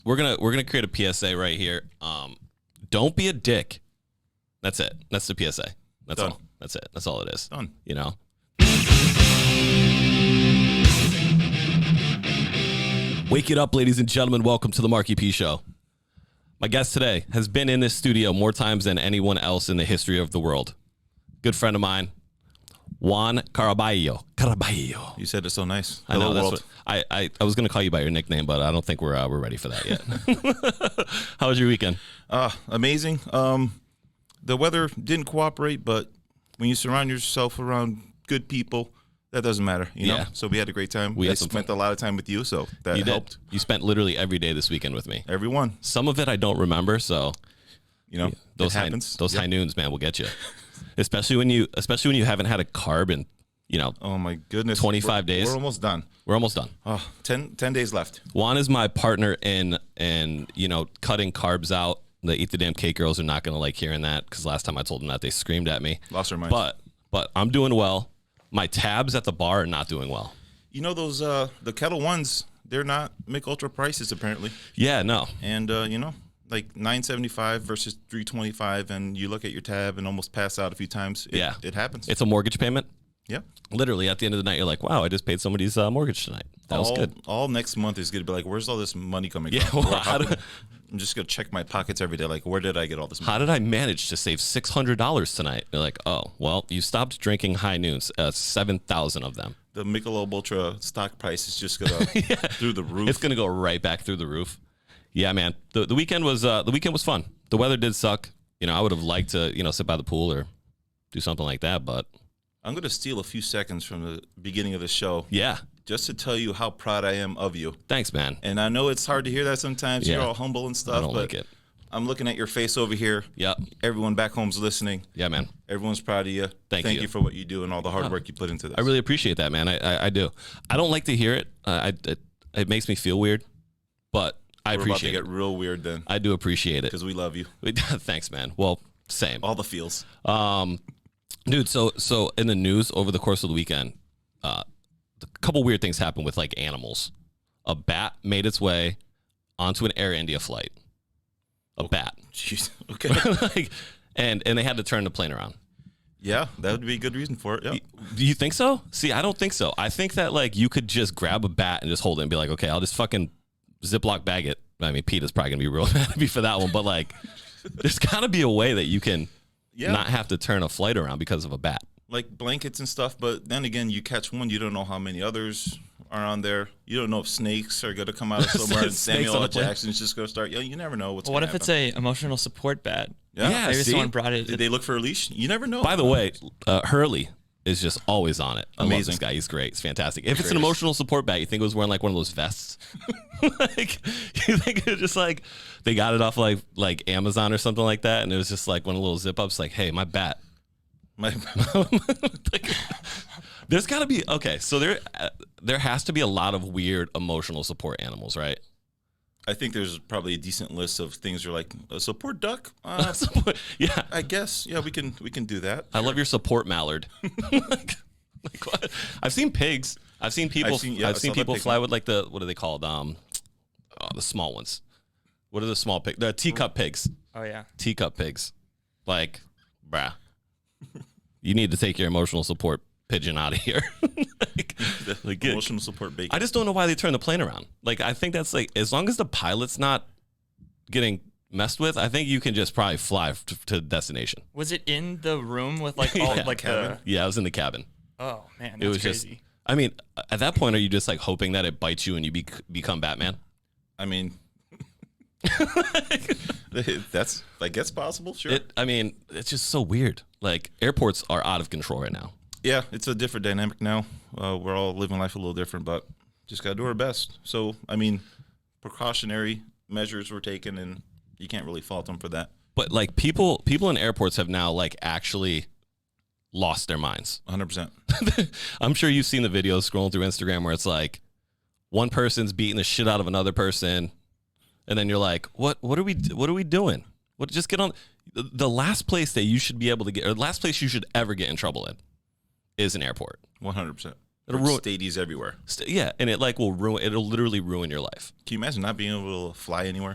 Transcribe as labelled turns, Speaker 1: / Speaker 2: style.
Speaker 1: we're gonna we're gonna create a PSA right here. Um, don't be a dick. That's it. That's the PSA. That's
Speaker 2: Done.
Speaker 1: all. That's it. That's all it is.
Speaker 2: Done.
Speaker 1: You know. Wake it up, ladies and gentlemen. Welcome to the Marky P Show. My guest today has been in this studio more times than anyone else in the history of the world. Good friend of mine, Juan Caraballo. Caraballo.
Speaker 2: You said it so nice.
Speaker 1: I know
Speaker 2: Hello,
Speaker 1: that's
Speaker 2: world.
Speaker 1: what, I, I I was gonna call you by your nickname, but I don't think we're uh, we're ready for that yet. How was your weekend?
Speaker 2: Ah, amazing. Um, the weather didn't cooperate, but when you surround yourself around good people, that doesn't matter, you know.
Speaker 1: Yeah.
Speaker 2: So we had a great time.
Speaker 1: We
Speaker 2: I
Speaker 1: had some
Speaker 2: spent a lot of time with you, so that
Speaker 1: You did.
Speaker 2: helped.
Speaker 1: You spent literally every day this weekend with me.
Speaker 2: Everyone,
Speaker 1: Some of it I don't remember, so
Speaker 2: you know,
Speaker 1: those
Speaker 2: it
Speaker 1: high,
Speaker 2: happens.
Speaker 1: those
Speaker 2: Yep.
Speaker 1: high noons, man, will get you. Especially when you especially when you haven't had a carb in you know
Speaker 2: oh my goodness,
Speaker 1: 25
Speaker 2: We're-
Speaker 1: days.
Speaker 2: We're almost done.
Speaker 1: we're almost done.
Speaker 2: Oh, 10, 10 days left.
Speaker 1: Juan is my partner in in you know cutting carbs out. The eat the damn cake girls are not gonna like hearing that because last time I told them that they screamed at me.
Speaker 2: Lost their minds.
Speaker 1: But but I'm doing well. My tabs at the bar are not doing well.
Speaker 2: You know those uh the kettle ones? They're not Mick Ultra prices apparently,
Speaker 1: Yeah, no.
Speaker 2: and uh, you know. Like nine seventy five versus three twenty five, and you look at your tab and almost pass out a few times. It,
Speaker 1: Yeah.
Speaker 2: it happens.
Speaker 1: It's a mortgage payment.
Speaker 2: yeah,
Speaker 1: Literally, at the end of the night, you're like, "Wow, I just paid somebody's uh, mortgage tonight. That was
Speaker 2: all,
Speaker 1: good."
Speaker 2: All next month is gonna be like, where's all this money coming
Speaker 1: Yeah,
Speaker 2: from?
Speaker 1: well,
Speaker 2: Or
Speaker 1: how
Speaker 2: how-
Speaker 1: do-
Speaker 2: I'm just gonna check my pockets every day. Like, where did I get all this money?
Speaker 1: How did I manage to save six hundred dollars tonight? You're like, "Oh, well, you stopped drinking high noons, uh, seven thousand of them.
Speaker 2: The Michelob Ultra stock price is just gonna through the roof.
Speaker 1: It's gonna go right back through the roof." Yeah, man. the The weekend was uh, the weekend was fun. The weather did suck. You know, I would have liked to you know sit by the pool or do something like that, but
Speaker 2: I'm gonna steal a few seconds from the beginning of the show
Speaker 1: yeah.
Speaker 2: just to tell you how proud I am of you.
Speaker 1: Thanks, man.
Speaker 2: And I know it's hard to hear that sometimes. You're
Speaker 1: Yeah.
Speaker 2: all humble and stuff.
Speaker 1: I don't
Speaker 2: but
Speaker 1: like it.
Speaker 2: I'm looking at your face over here.
Speaker 1: Yep.
Speaker 2: Everyone back home's listening.
Speaker 1: Yeah, man.
Speaker 2: Everyone's proud of you.
Speaker 1: Thank you. Uh,
Speaker 2: you. for what you do and all the hard work you put into this.
Speaker 1: I really appreciate that, man. I, I, I do. I don't like to hear it. Uh, I it, it makes me feel weird, but I
Speaker 2: We're about to
Speaker 1: appreciate
Speaker 2: get
Speaker 1: it.
Speaker 2: real weird then,
Speaker 1: I do appreciate it.
Speaker 2: because we love you.
Speaker 1: Thanks, man. Well, same,
Speaker 2: All the feels.
Speaker 1: um, dude. So so in the news over the course of the weekend, uh, a couple weird things happened with like animals. A bat made its way onto an Air India flight. A bat,
Speaker 2: Jeez. Okay.
Speaker 1: like, and and they had to turn the plane around.
Speaker 2: Yeah, that would be a good reason for it. Yeah.
Speaker 1: Do you think so? See, I don't think so. I think that like you could just grab a bat and just hold it and be like, okay, I'll just fucking Ziploc bag it. I mean, Pete is probably gonna be real mad at me for that one, but like, there's gotta be a way that you can
Speaker 2: Yeah.
Speaker 1: not have to turn a flight around because of a bat.
Speaker 2: Like blankets and stuff, but then again, you catch one, you don't know how many others are on there. You don't know if snakes are going to come out of somewhere and
Speaker 1: Snakes
Speaker 2: Samuel
Speaker 1: on a
Speaker 2: L.
Speaker 1: plane.
Speaker 2: Jackson's just going to start. Yeah, you never know what's
Speaker 3: What
Speaker 2: gonna
Speaker 3: if it's
Speaker 2: happen.
Speaker 3: a emotional support bat?
Speaker 1: Yeah,
Speaker 3: Maybe
Speaker 1: see?
Speaker 3: someone brought it.
Speaker 2: Did they look for a leash? You never know.
Speaker 1: By the way, uh, Hurley is just always on it. I love
Speaker 2: Amazing.
Speaker 1: this guy. He's great. He's fantastic. If it's an emotional support bat, you think it was wearing like one of those vests? like you think it's just like they got it off like like Amazon or something like that, and it was just like one of the little zip ups. Like, hey, my bat.
Speaker 2: My-
Speaker 1: Like, there's got to be okay. So there, uh, there has to be a lot of weird emotional support animals, right?
Speaker 2: I think there's probably a decent list of things you're like, a support duck? Uh,
Speaker 1: Support- yeah,
Speaker 2: I guess. Yeah, we can we can do that.
Speaker 1: I love your support mallard. like, like what? I've seen pigs. I've seen people. I've
Speaker 2: I've
Speaker 1: seen,
Speaker 2: seen- yeah, I saw that
Speaker 1: people
Speaker 2: pig
Speaker 1: fly
Speaker 2: one.
Speaker 1: with like the what are they called? Um, oh, the small ones. What are the small pigs? The teacup pigs.
Speaker 3: oh yeah.
Speaker 1: Teacup pigs. Like, bruh. You need to take your emotional support pigeon out of here. like,
Speaker 2: The
Speaker 1: like, good-
Speaker 2: emotional support bacon.
Speaker 1: I just don't know why they turn the plane around. Like I think that's like as long as the pilot's not getting messed with, I think you can just probably fly f- to destination.
Speaker 3: Was it in the room with like all
Speaker 1: Yeah.
Speaker 3: like
Speaker 2: Cabin?
Speaker 1: Yeah, I was in the cabin.
Speaker 3: the? Oh man, that's
Speaker 1: it was
Speaker 3: crazy.
Speaker 1: just. I mean, at that point, are you just like hoping that it bites you and you bec become Batman?
Speaker 2: I mean, that's, like that's possible, sure.
Speaker 1: It. I mean, it's just so weird. Like airports are out of control right now.
Speaker 2: yeah, it's a different dynamic now. Uh, we're all living life a little different, but just gotta do our best. So, I mean, precautionary measures were taken, and you can't really fault them for that.
Speaker 1: But like people, people in airports have now like actually lost their minds.
Speaker 2: 100. percent
Speaker 1: I'm sure you've seen the videos scrolling through Instagram where it's like one person's beating the shit out of another person, and then you're like, "What? What are we? What are we doing? What? Just get on." The- The last place that you should be able to get, or the last place you should ever get in trouble in, is an airport.
Speaker 2: 100. percent
Speaker 1: It'll ruin.
Speaker 2: stadies everywhere.
Speaker 1: st- yeah, and it like will ruin. It'll literally ruin your life.
Speaker 2: Can you imagine not being able to fly anywhere?